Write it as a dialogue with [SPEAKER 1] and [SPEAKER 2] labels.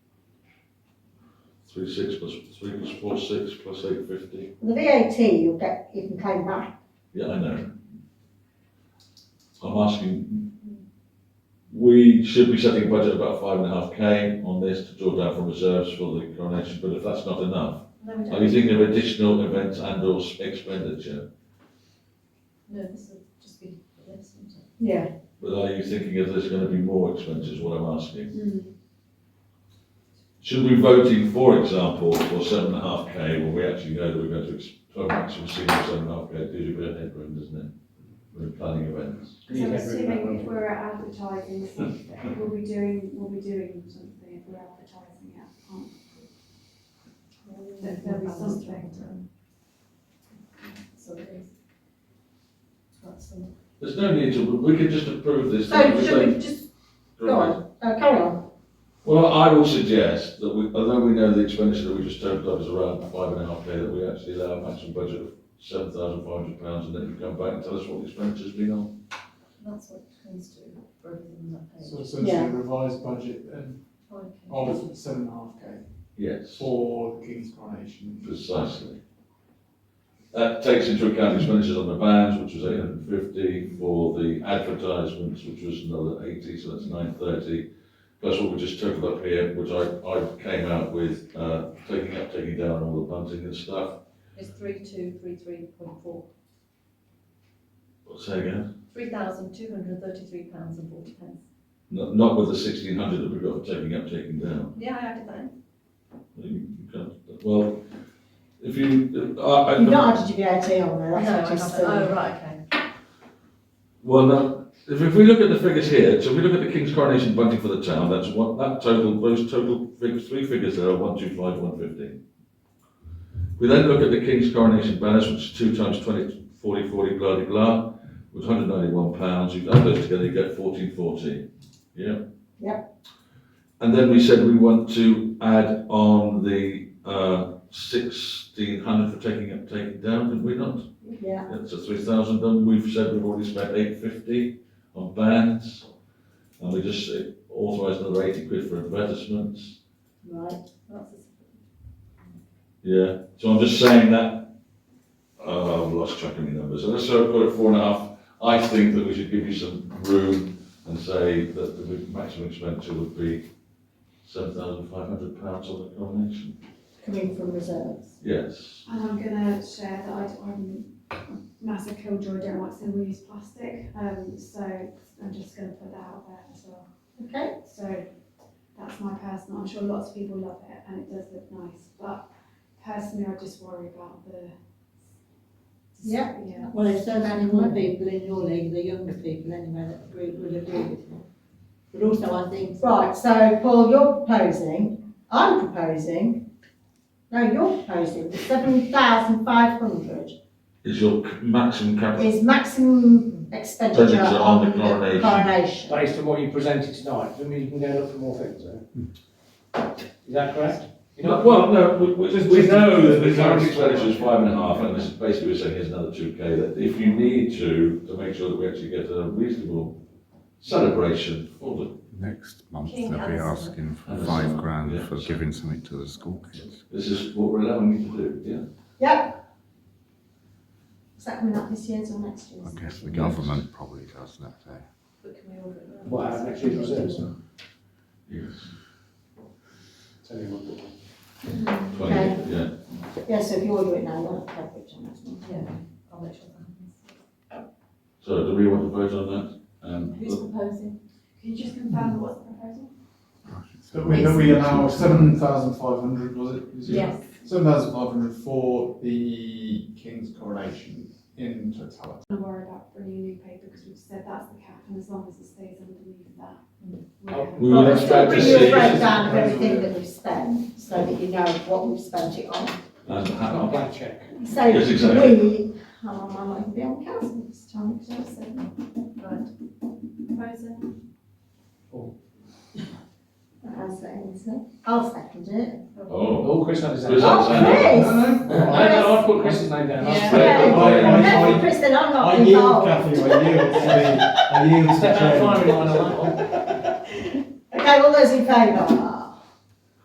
[SPEAKER 1] Three six plus, three plus four six plus eight fifty.
[SPEAKER 2] The VAT you get, you can claim back.
[SPEAKER 1] Yeah, I know. I'm asking, we should be setting a budget about five and a half K on this to draw down from reserves for the coronation, but if that's not enough,
[SPEAKER 3] No, we
[SPEAKER 1] are you
[SPEAKER 3] don't.
[SPEAKER 1] thinking of additional events and or expenditure?
[SPEAKER 3] No, this will just be for this, isn't it?
[SPEAKER 2] Yeah.
[SPEAKER 1] But are you thinking of there's gonna be more expenses, what I'm asking?
[SPEAKER 2] Hmm.
[SPEAKER 1] Should we be voting, for example, for seven and a half K, when we actually know that we're going to, ex- to a maximum ceiling of seven and a half K, it gives you a bit of headroom, doesn't it? When planning events.
[SPEAKER 4] Because I'm
[SPEAKER 5] Yeah, very
[SPEAKER 4] assuming if
[SPEAKER 5] well.
[SPEAKER 4] we're advertising something, we'll be doing, we'll be doing something if we're advertising it. aren't we? There- There'll be something.
[SPEAKER 3] So it is. That's the.
[SPEAKER 1] There's no need to, we can just approve this. don't
[SPEAKER 2] So
[SPEAKER 1] we?
[SPEAKER 2] should we just, go on, uh, carry on.
[SPEAKER 1] Well, I will suggest that we, although we know the expenditure that we just turned up is around five and a half K, that we actually allow a maximum budget of seven thousand five hundred pounds, and then you come back and tell us what the expenditure's been on.
[SPEAKER 3] That's what it comes to, rather than that page.
[SPEAKER 5] So essentially
[SPEAKER 2] Yeah.
[SPEAKER 5] a revised budget then
[SPEAKER 3] Okay.
[SPEAKER 5] of seven and a half K
[SPEAKER 1] Yes.
[SPEAKER 5] for the King's coronation.
[SPEAKER 1] Precisely. That takes into account expenditures on the vans, which was eight hundred and fifty, for the advertisements, which was another eighty, so that's nine thirty. Plus what we just totaled up here, which I, I came out with, uh, taking up, taking down all the bunting and stuff.
[SPEAKER 3] It's three two three three point four,
[SPEAKER 1] Say again?
[SPEAKER 3] three thousand two hundred thirty-three pounds and forty pence.
[SPEAKER 1] Not, not with the sixteen hundred that we've got for taking up, taking down.
[SPEAKER 3] Yeah, I added that in.
[SPEAKER 1] You can't- Well, if you, I, I.
[SPEAKER 2] You've not added your VAT on there,
[SPEAKER 3] No, I
[SPEAKER 2] that's what
[SPEAKER 3] haven't.
[SPEAKER 2] you
[SPEAKER 3] Oh,
[SPEAKER 2] said.
[SPEAKER 3] right, okay.
[SPEAKER 1] Well, now, if, if we look at the figures here, so if we look at the King's coronation bunting for the town, that's what, that total, those total figures, three figures there are one, two, five, one, fifteen. We then look at the King's coronation banners, which is two times twenty, forty, forty, blah, de blah, was hundred ninety-one pounds, you add those together, you get fourteen, fourteen, yeah? Yep. And then we said we want to add on the, uh, sixteen hundred for taking up, taking down, didn't we not?
[SPEAKER 2] Yeah,
[SPEAKER 1] That's a three thousand, and we've said we've already spent eight fifty on bands, and we just authorised another eighty quid for advertisements.
[SPEAKER 2] right.
[SPEAKER 3] That's the-
[SPEAKER 1] Yeah, so I'm just saying that, uh, I've lost track of my numbers, so let's sort of put it four and a half. I think that we should give you some room and say that the maximum expenditure would be seven thousand five hundred pounds on the coronation.
[SPEAKER 2] Coming from reserves.
[SPEAKER 1] Yes,
[SPEAKER 4] And I'm gonna share that I, I'm a massive killjoy, don't like single use plastic, um, so I'm just gonna put that out there as well.
[SPEAKER 2] Okay,
[SPEAKER 4] So that's my personal, I'm sure lots of people love it and it does look nice, but personally I just worry about the.
[SPEAKER 2] Yeah.
[SPEAKER 4] Yeah.
[SPEAKER 6] Well, there's so many more people in your league, the younger people anyway, that agree- would agree with you. But also, I think,
[SPEAKER 2] right, so Paul, you're proposing, I'm proposing, no, you're proposing seven thousand five hundred
[SPEAKER 1] is your c- maximum capital,
[SPEAKER 2] is maximum expenditure
[SPEAKER 1] Expenditure on
[SPEAKER 2] on
[SPEAKER 1] the
[SPEAKER 2] the
[SPEAKER 1] coronation.
[SPEAKER 2] coronation.
[SPEAKER 7] based on what you presented tonight, I mean, you can go and look for more things, eh? Is that correct? You know-
[SPEAKER 1] Well, no, we, we,
[SPEAKER 7] Just-
[SPEAKER 1] we
[SPEAKER 7] just-
[SPEAKER 1] know that the current expenditure is five and a half, and this is basically we're saying here's another two K, that if you need to, to make sure that we actually get a reasonable celebration for the,
[SPEAKER 8] Next month,
[SPEAKER 3] King
[SPEAKER 8] they'll be
[SPEAKER 3] Alexander.
[SPEAKER 8] asking for
[SPEAKER 1] Alexander,
[SPEAKER 8] five grand
[SPEAKER 1] yeah.
[SPEAKER 8] for giving something to the school kids.
[SPEAKER 1] this is what we're allowing you to do, yeah?
[SPEAKER 2] Yep. Is that coming up this year's or next year's?
[SPEAKER 8] I guess the government probably does that there.
[SPEAKER 3] But can we order it now?
[SPEAKER 7] What, our uh, next year's reserves?
[SPEAKER 1] Yes.
[SPEAKER 7] Tell you what.
[SPEAKER 2] Okay.
[SPEAKER 1] Twenty, yeah.
[SPEAKER 2] Yeah, so if you order it now, you'll have coverage on that one.
[SPEAKER 3] Yeah, I'll make sure that happens.
[SPEAKER 1] So do we want to vote on that? Um,
[SPEAKER 3] Who's proposing?
[SPEAKER 4] Can you just confirm what's the proposal?
[SPEAKER 8] Gosh, it's
[SPEAKER 5] That we, that we allow seven thousand five hundred, was it? Is it?
[SPEAKER 3] Yes.
[SPEAKER 5] Seven thousand five hundred for the King's coronation in totality.
[SPEAKER 4] I worry about bringing new paper because we've said that's the cap and as long as it stays underneath that. we're-
[SPEAKER 1] we
[SPEAKER 2] Well,
[SPEAKER 1] would
[SPEAKER 2] but
[SPEAKER 1] expect
[SPEAKER 2] still
[SPEAKER 1] to
[SPEAKER 2] bring you a
[SPEAKER 1] see, and
[SPEAKER 2] breakdown of everything that we've spent, so that you know what we've spent it on.
[SPEAKER 1] Uh,
[SPEAKER 7] A
[SPEAKER 1] how,
[SPEAKER 7] blank check.
[SPEAKER 2] So
[SPEAKER 1] Yes, exactly.
[SPEAKER 2] we, oh, I might even be on council this time, because I've said.
[SPEAKER 3] Right. Proposing,
[SPEAKER 2] I'll second it. I'll second it.
[SPEAKER 1] oh.
[SPEAKER 7] Oh, Chris had his hand
[SPEAKER 1] Chris
[SPEAKER 7] up.
[SPEAKER 1] had his hand up.
[SPEAKER 2] Yes.
[SPEAKER 5] No, no,
[SPEAKER 7] I, I put Chris's name down.
[SPEAKER 3] Yeah.
[SPEAKER 7] I'll-
[SPEAKER 1] Yeah.
[SPEAKER 2] Yeah,
[SPEAKER 5] I- I-
[SPEAKER 2] no,
[SPEAKER 5] I-
[SPEAKER 2] Kristen, I'm not
[SPEAKER 5] I yield,
[SPEAKER 2] involved.
[SPEAKER 5] Kathy, I yield to the, I yield to
[SPEAKER 7] Step down
[SPEAKER 5] Jane.
[SPEAKER 7] firing line on that one.
[SPEAKER 2] Okay, all those in favour?